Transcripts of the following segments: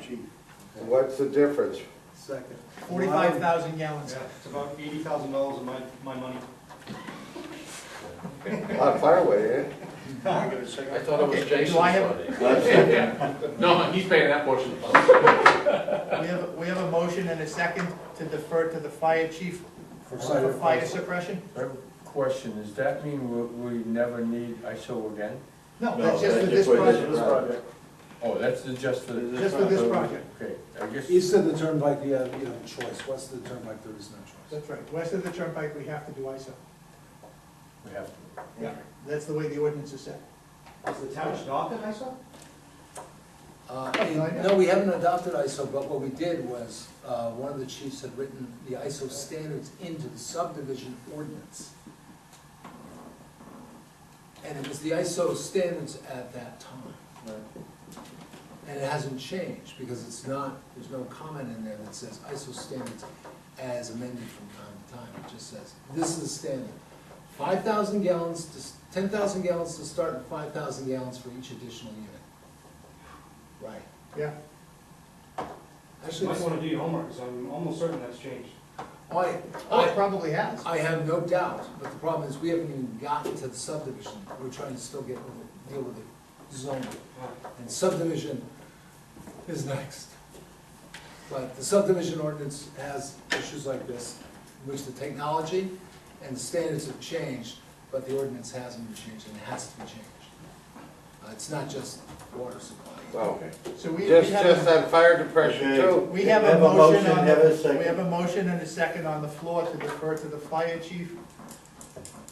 feet. What's the difference? Second. Forty-five thousand gallons. It's about eighty thousand dollars of my, my money. A lot of firewood, eh? I'll give it a second. I thought it was Okay, do Jason's I have- money. No, he's paying that portion. We have, a- we have a motion and a second to defer to the fire chief For for fire suppression? I have a Question, does that mean we, we never need ISO again? No, No, that's just for that's this just for this project, This project. Oh, that's the- just for. just for this project. Okay, I guess. You said the turnpike, you have, you have a choice, west of the turnpike, there is no choice. That's right, west of the turnpike, we have to do ISO. We have to. Yeah, that's the way the ordinance is set. Is the town adopted, I saw? Uh, and No, we haven't adopted ISO, but what we did was, uh, one of the chiefs had written the ISO standards into the subdivision ordinance. And it was the ISO standards at that time. And it hasn't changed, because it's not, there's no comment in there that says ISO standards as amended from time to time. It just says, this is the standard. Five thousand gallons, to ten thousand gallons to start, and five thousand gallons for each additional unit. Right. Yeah, You Actually, might it's- wanna do your homework, because I'm almost certain that's changed. I, oh, it I, probably has. I have no doubt, but the problem is, we haven't even gotten to the subdivision. We're trying to still get, with it- deal with the zoning. And subdivision is next. But the subdivision ordinance has issues like this, in which the technology and standards have changed, but the ordinance hasn't been changed, and it has to be changed. Uh, It's not just water supply. Well, So we, we just, just have, a- that fire depression too. we have Have a a motion motion, on, have a the- second. we have a motion and a second on the floor to defer to the fire chief.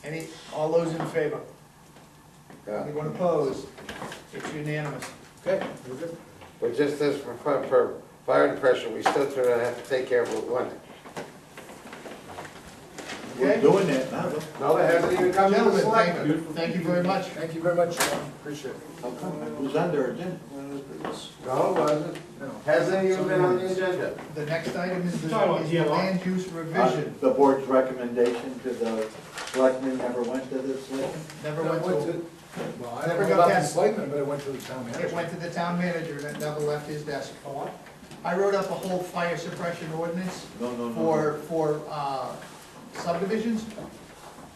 Any, all those in favor? Yeah. Anyone opposed? It's unanimous. Okay, we're good. But just this for, fi- for fire depression, we still sort of have to take care of Route one. We're Okay? doing that now. No, it hasn't even come to the Gentlemen, thank selectmen. you, thank you very much. Thank you very much, John, appreciate it. How come it was under agenda? No, it wasn't. No. Hasn't even been on the agenda. The next item is the Sorry, what, is the DLR? land use revision. Uh, The board's recommendation to the selectmen never went to the selectmen? Never went to, Well, I Never don't know got about that. the selectmen, but it went to the town manager. it went to the town manager and it never left his desk. Oh, what? I wrote up a whole fire suppression ordinance No, no, no. for, for uh, subdivisions.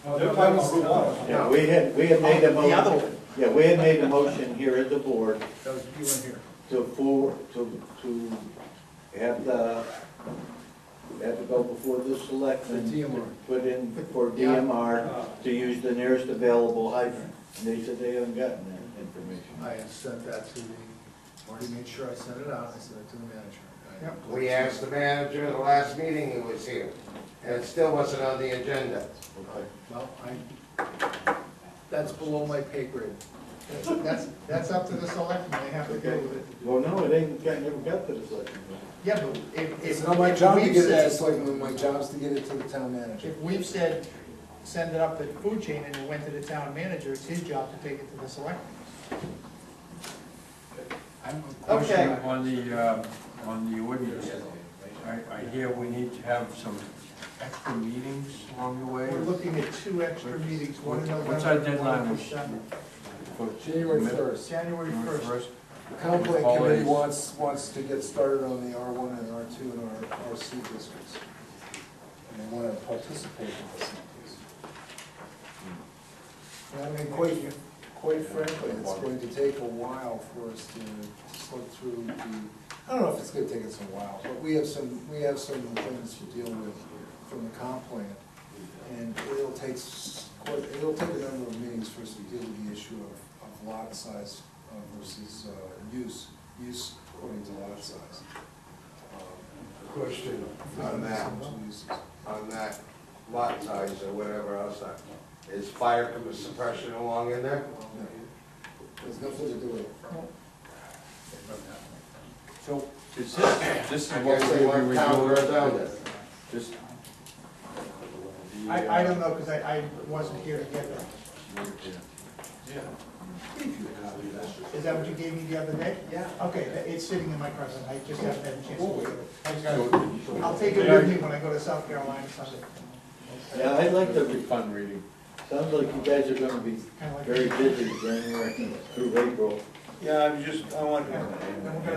Oh, They're talking about Route one. Yeah, we had, we had made a The other motion, one. yeah, we had made a motion here at the board That was, you weren't here. to for, to, to have the, have to go before the selectmen. The DMR. to Put in for Uh. DMR to use the nearest available hydrant. And they said they haven't gotten that information. I had sent that to the, already made sure I sent it out, I sent it to the manager. Yep. We asked the manager at the last meeting he was here, and it still wasn't on the agenda. Okay. Well, I, that's below my pay grade. That's, that's up to the selectmen, they have to deal with it. Well, no, it ain't, got- never got to the selectmen. Yeah, but if, if. It's not my job to we've get it to said- the selectmen, my job's to get it to the town manager. If we've said, send it up the food chain and it went to the town manager, it's his job to take it to the selectmen. I have a question Okay. on the, um, on the ordinance. I, I hear we need to have some extra meetings along the way. We're looking at two extra meetings, one in November. What's our and one in deadline? December. For- January Mid- first, January January first. first? the comp plan Always. committee wants, wants to get started on the R one and R two and R, RC districts. And they wanna participate in this. And I mean, quite, quite frankly, it's going to take a while for us to slip through the, I don't know if it's gonna take us a while, but we have some, we have some things to deal with from the comp plan. And it'll take, s- quite, it'll take a number of meetings for us to deal with the issue of, of lot size uh, versus, uh, use, use according to lot size. Question on Um, that, some uses. on that lot size or whatever else, uh, is fire suppression along in there? No. There's nothing to do with it. So, is this, this is I what guess we're they gonna be want town roads on reviewing? it. This. I, I don't know, because I, I wasn't here to get that. Is that what you gave me the other day? Yeah. Okay, tha- it's sitting in my present, I just haven't had a chance to look at it. I'll take it with me when I go to South Carolina Sunday. Yeah, I'd like to That'd be fun reading. Sounds like you guys are gonna be Kinda like- very busy January through April. And we're gonna